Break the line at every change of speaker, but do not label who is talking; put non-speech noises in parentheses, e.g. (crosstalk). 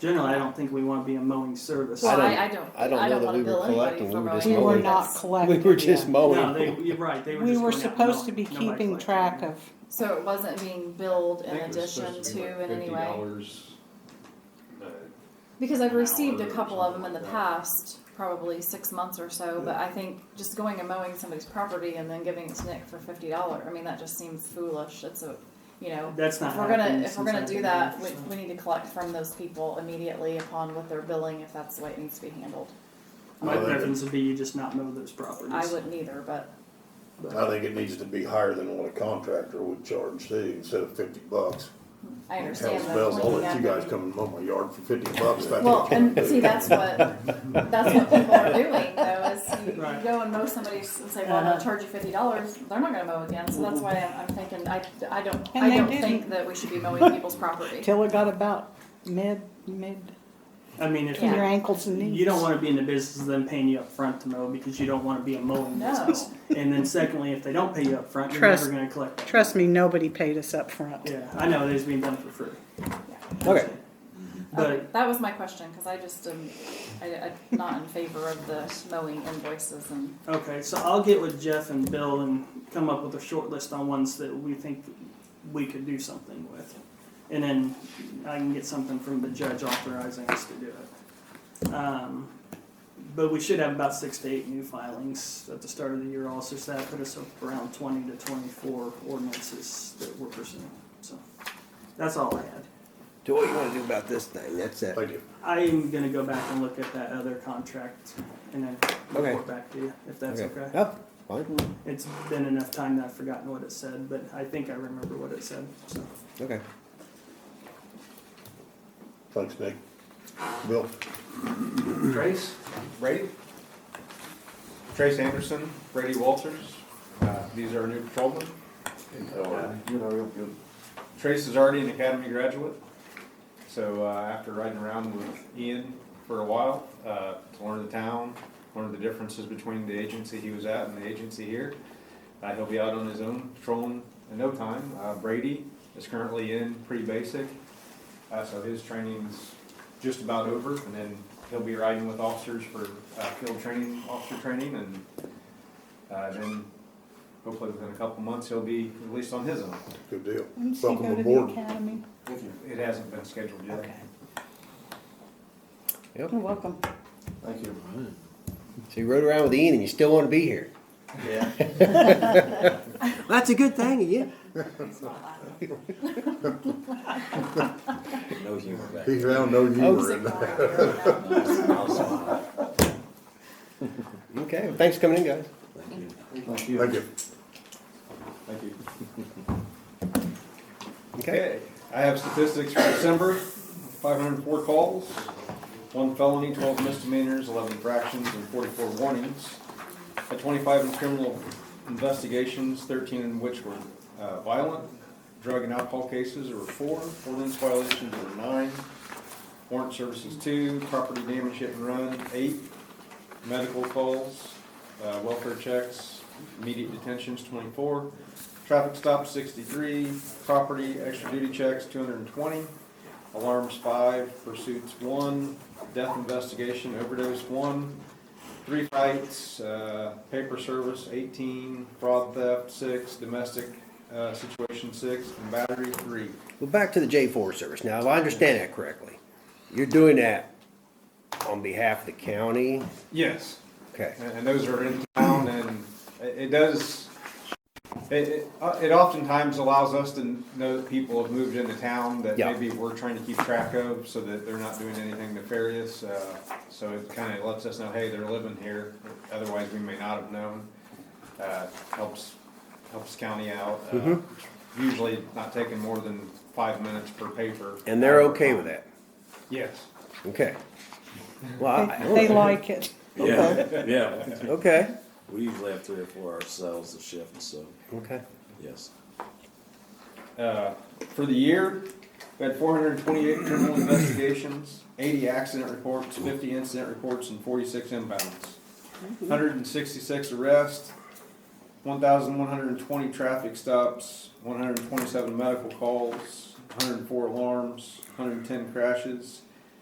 Generally, I don't think we want to be a mowing service.
Well,
I
I, I don't.
I don't know that
wanna
we were
bill anybody
collecting,
for
we were
mowing.
just
We were
mowing.
not
We
collecting.
were just
yeah.
No, they,
mowing.
you're right, they were
We
just
were
going out
supposed to
mowing.
be
Nobody
keeping
collected
track
anything.
of,
So it wasn't being billed
I
in
think it was
addition
supposed be
to
like
in any way?
$50, uh,
Because I've
an
received a
hour or
couple of them in
something
the
like that.
past, probably six months or so, but I think just going and mowing somebody's property and then giving it to Nick for fifty dollars, I mean, that just seems foolish, it's a, you know.
That's not
If we're gonna,
happened
if we're
since
gonna
I've
do
been
that, we,
here, so.
we need to collect from those people immediately upon what they're billing, if that's the way it needs to be handled.
My
Well, that-
preference would be you just not mow those properties.
I wouldn't either, but,
I think it needs to be higher than what a contractor would charge too, instead of fifty bucks.
I
Hell's
understand that.
bells, I'll
looking
let
at
you guys
them-
come and mow my yard for fifty bucks. if I
Well,
can't
and
do it.
see, that's what, that's what people are doing though, is you-
(laughs)
you
Right.
go and mow somebody's and say, well, I'm gonna
Uh-huh.
charge you fifty dollars, they're not gonna mow again, so that's why I'm, I'm thinking, I, I don't,
And
I
they
don't
didn't.
think that we should be mowing people's
(laughs)
property.
till it got about mid, mid,
I mean, if
Yeah.
your ankles and knees.
you don't want to be in the business of them paying you up front to mow because you don't want to be a mowing
No.
business. And then secondly, if they don't pay you up front, you're
Trust-
never going to collect. that.
Trust me, nobody paid us up front.
Yeah, I know they's being done for free.
Okay.
But
That was my question, cause I just am, I, am not in favor of the mowing invoices and,
okay, so I'll get with Jeff and Bill and come up with a short list on ones that we think we could do something with, and then I can get something from the judge authorizing us to do it. Um, but we should have about six to eight new filings at the start of the year. Also, so that put us up around twenty to twenty-four ordinances that we're pursuing. So that's all I had.
So what you wanna do about this thing, that's it.
Thank you.
I am gonna go back and look at that other contract and then
Okay.
report back to you, if that's okay.
Oh, fine,
It's been enough time that I've forgotten what it said, but I think I remember what it said, so.
okay.
Thanks, Nick. Bill,
Trace, Brady, Trace Anderson, Brady Walters. Uh, These are our new patrolmen.
uh,
You know, real good. Trace is already an academy graduate, so uh, after riding around with Ian for a while, uh, to learn the town, learn the differences between the agency he was at and the agency here, uh, he'll be out on his own patrolling in no time. Uh, Brady is currently in pre-basic, uh, so his training's just about over, and then he'll be riding with officers for uh, field training, officer training, and uh, then hopefully within a couple months, he'll be released on his own.
good deal.
When's he
Welcome
go to the
aboard.
academy?
It hasn't been scheduled yet.
Okay.
Yep.
You're welcome.
Thank you.
So you rode around with Ian and you still wanna be here. (laughs)
Yeah.
That's a good thing, yeah.
No humor back.
He found no
Oh,
humor in that.
Okay, well, thanks for coming in, guys.
Thank
Thank you.
Thank you.
Okay,
Okay, I have statistics for December, five hundred and four calls, one felony, twelve misdemeanors, eleven infractions, and forty-four warnings. At twenty-five in criminal investigations, thirteen in which were uh, violent, drug and alcohol cases were four, ordinance violations were nine, warrant services two, property damage hit and run, eight, medical calls, uh, welfare checks, immediate detentions, twenty-four, traffic stops, sixty-three, property extra duty checks, two hundred and twenty, alarms, five, pursuits, one, death investigation, overdose, one, three fights, uh, paper service, eighteen, fraud theft, six, domestic, uh, situation, six, and battery, three.
well, back to the J four service. Now, if I understand that correctly, you're doing that on behalf of the county?
Yes.
Okay,
And, and those are in town, and it, it does, it, it, uh, it oftentimes allows us to know that people have moved into town that
Yeah.
maybe we're trying to keep track of, so that they're not doing anything nefarious, uh, so it kinda lets us know, hey, they're living here, otherwise we may not have known. Uh, helps, helps county out, uh,
Mm-hmm.
usually not taking more than five minutes per paper.
and they're okay with that?
Yes.
Okay. Well, I-
They- They like it.
Yeah, yeah.
Okay,
We usually have three or four ourselves to shift, so,
okay.
yes.
Uh, For the year, we had four hundred and twenty-eight criminal investigations, eighty accident reports, fifty incident reports, and forty-six inbounds. Hundred and sixty-six arrests, one thousand one hundred and twenty traffic stops, one hundred and twenty-seven medical calls, hundred and four alarms, hundred and ten crashes,